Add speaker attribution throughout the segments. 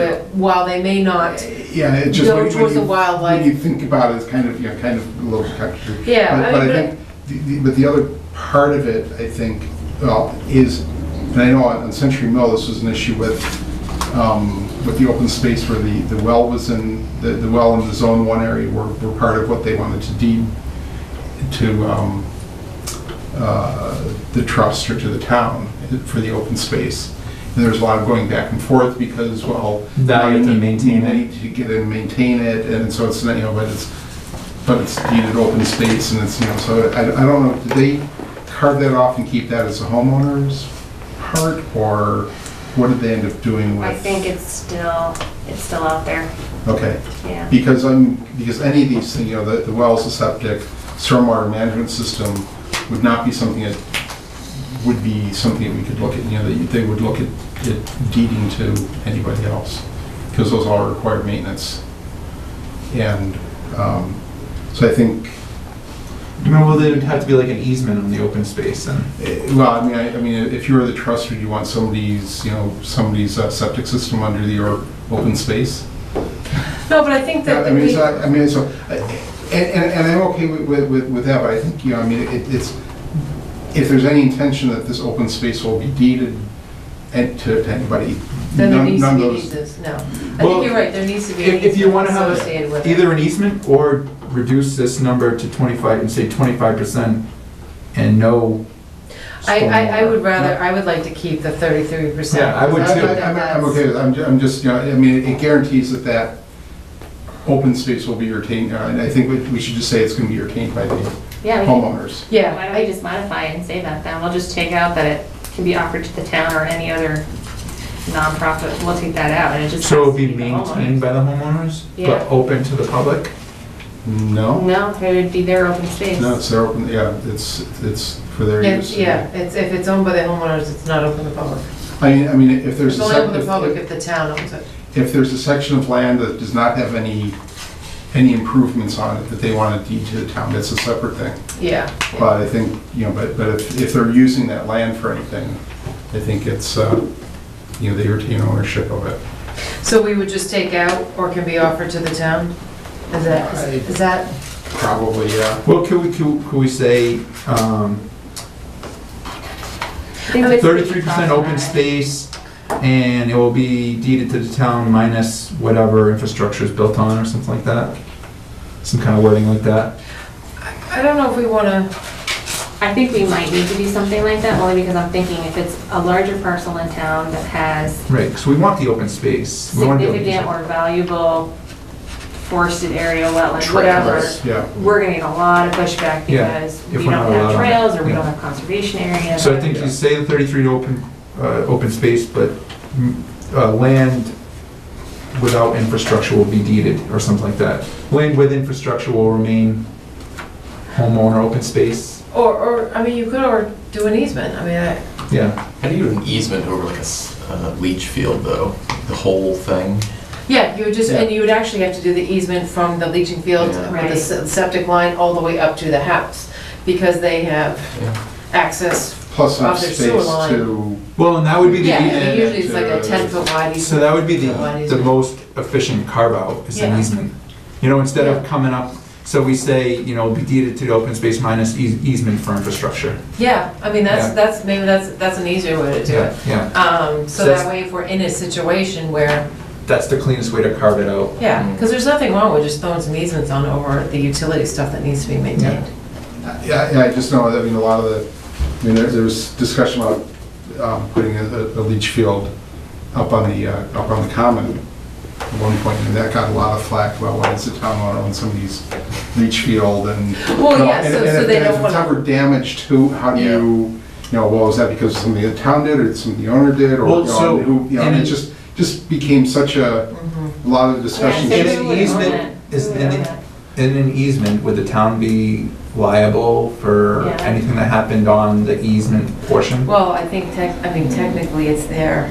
Speaker 1: that while they may not,
Speaker 2: Yeah, it just.
Speaker 1: Go
Speaker 2: when- when
Speaker 1: towards the
Speaker 2: you-
Speaker 1: wildlife.
Speaker 2: When you think about it, it's kind of, you know, kind of a little country.
Speaker 1: Yeah, I
Speaker 2: But but I
Speaker 1: mean, but-
Speaker 2: think, the- the- but the other part of it, I think, well, is, and I know on Century Mill, this was an issue with, um, with the open space where the, the well was in, the, the well in the zone one area were, were part of what they wanted to deed to, um, uh, the trust or to the town for the open space. And there's a lot of going back and forth because, well.
Speaker 3: Now you have to maintain it.
Speaker 2: They need to get in, maintain it, and so it's, you know, but it's, but it's deeded open space and it's, you know, so I, I don't know, did they carve that off and keep that as a homeowner's part? Or what did they end up doing with?
Speaker 4: I think it's still, it's still out there,
Speaker 2: Okay.
Speaker 4: yeah.
Speaker 2: Because I'm, because any of these things, you know, the, the wells, the septic, stormwater management system would not be something that, would be something that we could look at, you know, that they would look at at deeding to anybody else, because those all require maintenance. And, um, so I think,
Speaker 3: No, well, there would have to be like an easement on the open space and.
Speaker 2: eh, well, I mean, I, I mean, if you were the trust, would you want somebody's, you know, somebody's uh, septic system under your open space?
Speaker 1: no, but I think
Speaker 2: Yeah,
Speaker 1: that
Speaker 2: I mean,
Speaker 1: we,
Speaker 2: so, I mean, so, I- and, and and I'm okay with- with, with, with that, but I think, you know, I mean, it, it's, if there's any intention that this open space will be deeded and to to anybody,
Speaker 1: then there
Speaker 2: none
Speaker 1: needs
Speaker 2: none
Speaker 1: to
Speaker 2: of
Speaker 1: be
Speaker 2: those.
Speaker 1: uses, no. I
Speaker 3: Well,
Speaker 1: think you're right, there needs to be an
Speaker 3: If, if you
Speaker 1: easement
Speaker 3: want to have
Speaker 1: associated with it.
Speaker 3: either an easement or reduce this number to twenty-five and say twenty-five percent and no.
Speaker 1: I, I, I would
Speaker 3: stormwater.
Speaker 1: rather, I would like to keep the thirty-three percent.
Speaker 3: Yeah, I would
Speaker 2: I-
Speaker 3: too.
Speaker 2: I- I'm, I'm okay with, I'm, ju- I'm just, you know, I mean, it guarantees that that open space will be retained, uh, and I think we, we should just say it's gonna be retained by the
Speaker 4: Yeah, we can-
Speaker 2: homeowners.
Speaker 1: Yeah,
Speaker 4: why don't we just modify it and say that then? We'll just take out that it can be offered to the town or any other nonprofit. We'll take that out and it just.
Speaker 3: So it
Speaker 4: has
Speaker 3: would
Speaker 4: to
Speaker 3: be
Speaker 4: the
Speaker 3: maintained by the homeowners,
Speaker 4: Yeah.
Speaker 3: but open to the public?
Speaker 4: homeowner.
Speaker 2: No,
Speaker 4: No, it would be their open space.
Speaker 2: no, it's their open, yeah, it's, it's for their
Speaker 1: it's,
Speaker 2: use.
Speaker 1: yeah, it's, if it's owned by the homeowners, it's not open to the public.
Speaker 2: I mean, I mean, if there's.
Speaker 1: It's only
Speaker 2: a sep-
Speaker 1: open to the
Speaker 2: if-
Speaker 1: public if the town owns it.
Speaker 2: if there's a section of land that does not have any, any improvements on it that they want to deed to the town, that's a separate thing.
Speaker 1: Yeah,
Speaker 2: But I think, you know, but, but if, if they're using that land for anything, I think it's, uh, you know, they retain ownership of it.
Speaker 1: so we would just take out or can be offered to the town? Is that, is is that,
Speaker 2: Probably, yeah.
Speaker 3: Well, could we, could, could we say, um,
Speaker 4: I think this would be
Speaker 3: thirty-three percent open
Speaker 4: problematic.
Speaker 3: space and it will be deeded to the town minus whatever infrastructure is built on or something like that? Some kind of wording like that?
Speaker 1: I don't know if we wanna,
Speaker 4: I think we might need to do something like that only because I'm thinking if it's a larger parcel in town that has
Speaker 3: Right, because we want the open space. We want to be able to use
Speaker 4: significant
Speaker 3: it.
Speaker 4: or valuable forested area, wetland, whatever.
Speaker 2: Trails, Yeah.
Speaker 4: we're gonna get a lot of pushback
Speaker 3: Yeah,
Speaker 4: because
Speaker 3: if
Speaker 4: we
Speaker 3: we're
Speaker 4: don't
Speaker 3: not
Speaker 4: have
Speaker 3: allowed on it,
Speaker 4: trails or we
Speaker 3: yeah.
Speaker 4: don't have conservation areas.
Speaker 3: So I think you say the 33 to open, uh, open space, but mm, uh, land without infrastructure will be deeded, or something like that. Land with infrastructure will remain homeowner open space,
Speaker 1: or, or, I mean, you could, or do an easement, I mean, I,
Speaker 3: yeah.
Speaker 5: How do you do an easement over like a s- uh, leach field though? The whole thing?
Speaker 1: yeah, you would just, and you would actually have to do the easement from the leaching field,
Speaker 5: Yeah.
Speaker 1: or the se- septic line, all the way up to the house, because they have
Speaker 5: Yeah.
Speaker 1: access
Speaker 2: Plus enough
Speaker 1: Off their
Speaker 2: space
Speaker 1: sewer line.
Speaker 2: to,
Speaker 3: Well, and that would be
Speaker 1: Yeah, I mean,
Speaker 3: the, e-
Speaker 2: and
Speaker 1: usually it's like a
Speaker 2: to-
Speaker 1: ten foot wide
Speaker 3: so
Speaker 1: easement.
Speaker 3: that would be
Speaker 1: Wide
Speaker 3: the, the
Speaker 1: easement.
Speaker 3: most efficient carve-out, is
Speaker 1: Yeah.
Speaker 3: an easement. You know, instead of coming up, so we say, you know, be deeded to the open space minus eas- easement for infrastructure.
Speaker 1: Yeah, I mean, that's, that's, maybe that's, that's an easier way to do it.
Speaker 3: Yeah,
Speaker 1: Um, so
Speaker 3: So
Speaker 1: that
Speaker 3: that's-
Speaker 1: way if we're in a situation where,
Speaker 3: that's the cleanest way to carve it out.
Speaker 1: yeah, because there's nothing wrong with just throwing some easements on over the utility stuff that needs to be maintained.
Speaker 2: yeah, yeah, I just know, I mean, a lot of the, I mean, there, there was discussion about, um, putting a, a leach field up on the, uh, up on the common at one point, and that got a lot of flack, well, why does the town want to own somebody's leach field and.
Speaker 1: Well, yeah,
Speaker 2: And-
Speaker 1: so,
Speaker 2: and
Speaker 1: so
Speaker 2: if-
Speaker 1: they
Speaker 2: and
Speaker 1: don't
Speaker 2: If it's
Speaker 1: wanna,
Speaker 2: ever damaged, who, how do
Speaker 5: Yeah.
Speaker 2: you, you know, well, is that because something the town did, or did something the owner did, or,
Speaker 3: Well,
Speaker 2: you know,
Speaker 3: so-
Speaker 2: who, you know,
Speaker 3: and
Speaker 2: and it
Speaker 3: it-
Speaker 2: just, just became such a,
Speaker 1: Mhm.
Speaker 2: a lot of
Speaker 4: Yeah,
Speaker 2: discussion.
Speaker 4: so
Speaker 3: If
Speaker 2: just-
Speaker 3: an
Speaker 4: who would own
Speaker 3: easement
Speaker 4: it?
Speaker 3: is
Speaker 4: Who would
Speaker 3: in
Speaker 4: own
Speaker 3: it- In an easement, would the town be liable for
Speaker 4: Yeah.
Speaker 3: anything that happened on the easement portion?
Speaker 1: well, I think tech, I mean, technically it's their,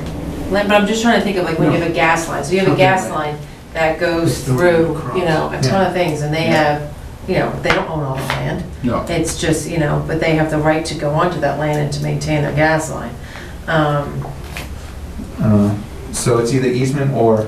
Speaker 1: land, but I'm just trying to think of like when you have a gas line, so you have a
Speaker 3: Something
Speaker 1: gas
Speaker 3: like-
Speaker 1: line that goes
Speaker 3: Just the
Speaker 1: through,
Speaker 3: across.
Speaker 1: you know, a ton
Speaker 3: Yeah.
Speaker 1: of things and they have, you know, they don't own all the land.
Speaker 2: No,
Speaker 1: It's just, you know, but they have the right to go onto that land and to maintain their gas line. Um,
Speaker 3: Uh, So it's either easement or